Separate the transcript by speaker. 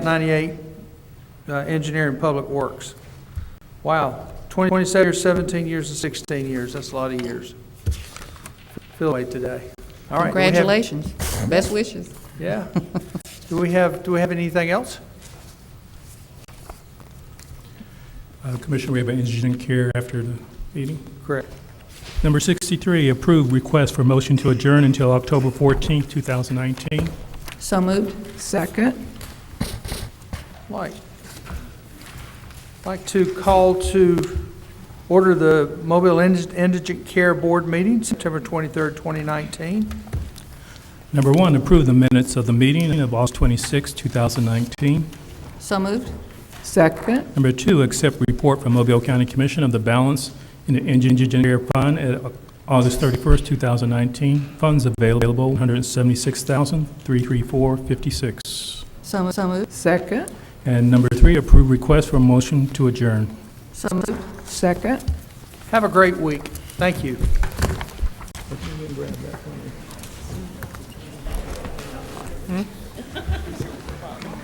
Speaker 1: 98, uh, engineering public works. Wow, 20 27 years, 17 years, and 16 years, that's a lot of years. Feel the way today. All right. do we have-
Speaker 2: Congratulations. Best wishes.
Speaker 1: Yeah. Do we have, do we have anything else?
Speaker 3: Uh, Commissioner, we have an indigent care after the meeting.
Speaker 1: Correct.
Speaker 3: Number 63, approved request for motion to adjourn until October 14th, 2019.
Speaker 2: So moved.
Speaker 4: Second.
Speaker 1: Like, like to call to order the Mobile Indig- Indigent Care Board meeting, September 23rd, 2019.
Speaker 3: Number one, approve the minutes of the meeting of August 26, 2019.
Speaker 2: So moved.
Speaker 4: Second.
Speaker 3: Number two, accept report from Mobile County Commission of the balance in the indigent care fund at August 31st, 2019. Funds available, $176,334.56.
Speaker 2: So mo- so moved.
Speaker 4: Second.
Speaker 3: And number three, approve request for motion to adjourn.
Speaker 2: So moved.
Speaker 4: Second.
Speaker 1: Have a great week. Thank you.